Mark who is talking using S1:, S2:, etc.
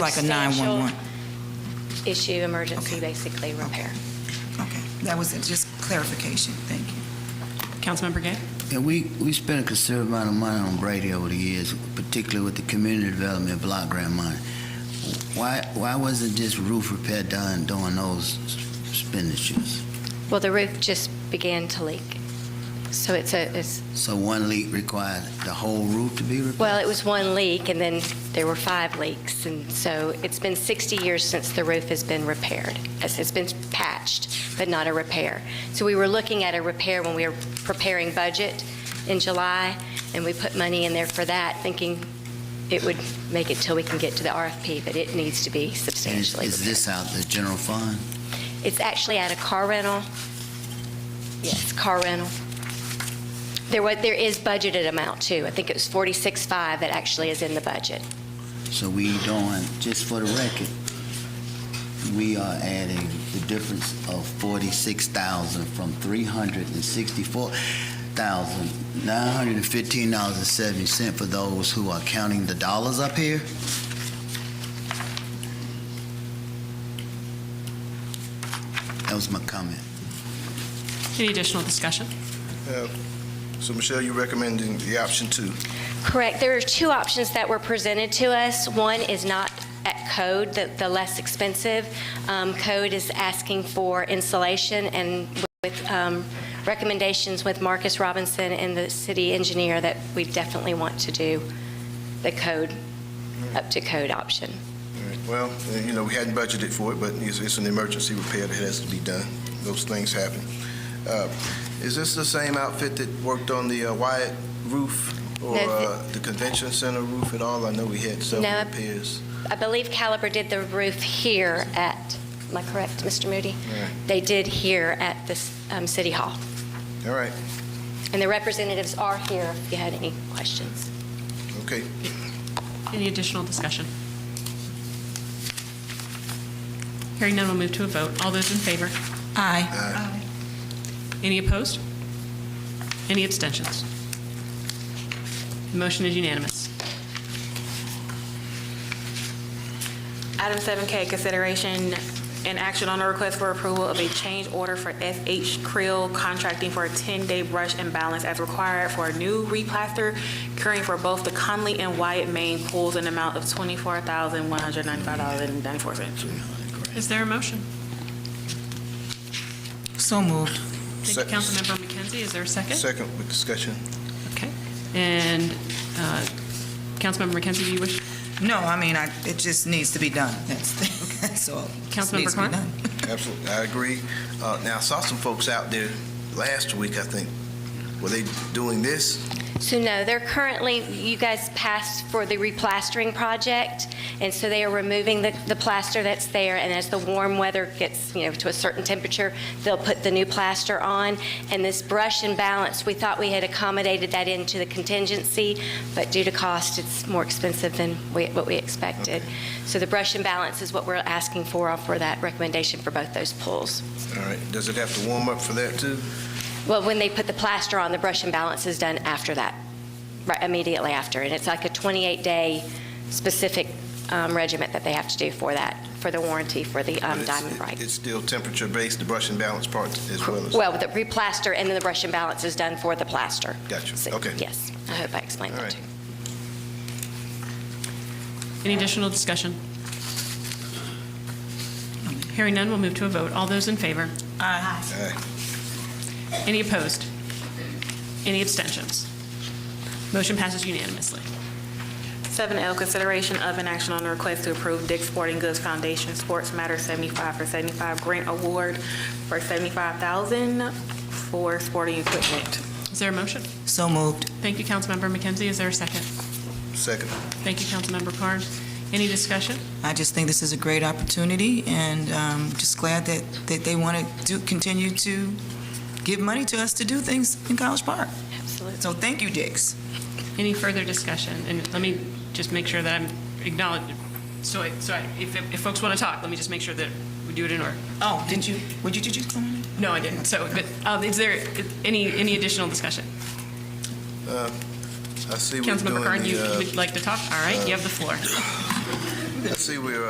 S1: Like a 911.
S2: issue, emergency,
S1: Okay.
S2: basically, repair.
S1: Okay, that was it, just clarification, thank you.
S3: Councilmember Gay?
S4: Yeah, we, we spent a considerable amount of money on Brady over the years, particularly with the community development block grant money. Why, why wasn't just roof repair done during those expenditures?
S2: Well, the roof just began to leak. So it's a, it's,
S4: So one leak required the whole roof to be repaired?
S2: well, it was one leak, and then there were five leaks. And so it's been 60 years since the roof has been repaired. It's it's been patched, but not a repair. So we were looking at a repair when we were preparing budget in July, and we put money in there for that, thinking it would make it till we can get to the RFP, but it needs to be
S4: And is-
S2: substantially
S4: Is
S2: repaired.
S4: this out the general fund?
S2: It's actually at a car rental. Yes, car rental. There was, there is budgeted amount too. I think it was 46.5 that actually is in the budget.
S4: So we doing, just for the record, we are adding the difference of forty-six thousand from three hundred and sixty-four thousand, nine hundred and fifteen dollars and seventy cent for those who are counting the dollars up here? That was my comment.
S3: Any additional discussion?
S5: So Michelle, you recommending the option two?
S2: Correct. There are two options that were presented to us. One is not at code, the, the less expensive. Um, Code is asking for insulation and with um, recommendations with Marcus Robinson and the city engineer that we definitely want to do the code, up to code option.
S5: Well, uh, you know, we hadn't budgeted for it, but it's, it's an emergency repair that has to be done. Those things happen. Uh, Is this the same outfit that worked on the uh, Wyatt roof or
S2: No, the-
S5: uh, the convention center roof at all? I know we had several
S2: No.
S5: repairs.
S2: I believe Caliber did the roof here at, am I correct, Mr. Moody?
S5: Yeah.
S2: They did here at this um, City Hall.
S5: All right,
S2: And the representatives are here if you had any questions.
S5: okay.
S3: Any additional discussion? Hearing none, we'll move to a vote. All those in favor?
S1: Aye.
S3: Any opposed? Any abstentions? The motion is unanimous.
S6: Item 7K, consideration and action on a request for approval of a change order for FH Krill Contracting for a 10-day brush and balance as required for a new replaster curing for both the Conley and Wyatt Main pools in amount of $24,195.94.
S3: Is there a motion?
S1: So moved.
S3: Thank you,
S5: Sec-
S3: Councilmember McKenzie. Is there a second?
S5: Second with discussion.
S3: Okay. And uh, Councilmember McKenzie, do you wish?
S1: No, I mean, I, it just needs to be done, that's, that's all. It just
S3: Councilmember
S1: needs to be
S3: Carr?
S1: done.
S5: Absolutely, I agree. Uh, Now, I saw some folks out there last week, I think. Were they doing this?
S2: So no, they're currently, you guys passed for the replastering project, and so they are removing the, the plaster that's there, and as the warm weather gets, you know, to a certain temperature, they'll put the new plaster on, and this brush and balance, we thought we had accommodated that into the contingency, but due to cost, it's more expensive than we, what we expected. So the brush and balance is what we're asking for, for that recommendation for both those pools.
S5: All right, does it have to warm up for that too?
S2: Well, when they put the plaster on, the brush and balance is done after that, right, immediately after. And it's like a 28-day specific um, regiment that they have to do for that, for the warranty for the um,
S5: But it's-
S2: diamond bright.
S5: It's still temperature-based, the brush and balance part as well as...
S2: Well, the replaster and then the brush and balance is done for the plaster.
S5: Gotcha.
S2: So,
S5: Okay.
S2: Yes, I hope I explained
S5: All
S2: that
S5: right.
S2: too.
S3: Any additional discussion? Hearing none, we'll move to a vote. All those in favor?
S5: Aye.
S3: Any opposed? Any abstentions? Motion passes unanimously.
S6: 7L, consideration of an action on a request to approve Dick's Sporting Goods Foundation Sports Matter 75 for 75 grant award for $75,000 for sporting equipment.
S3: Is there a motion?
S1: So moved.
S3: Thank you, Councilmember McKenzie. Is there a second?
S5: Second.
S3: Thank you, Councilmember Carnes. Any discussion?
S1: I just think this is a great opportunity, and um, just glad that, that they want to do, continue to give money to us to do things in College Park.
S2: Absolutely.
S1: So thank you, Dix.
S3: Any further discussion? And let me just make sure that I'm acknowledged, so, I- so I- if, if folks want to talk, let me just make sure that we do it in order.
S1: Oh, did you, would you, did you come on?
S3: No, I didn't. So, but, um, is there any, any additional discussion?
S5: I see we're doing
S3: Councilmember Carnes, you
S5: the,
S3: you would like to talk? All right, you have the floor.
S5: uh, I see we're uh,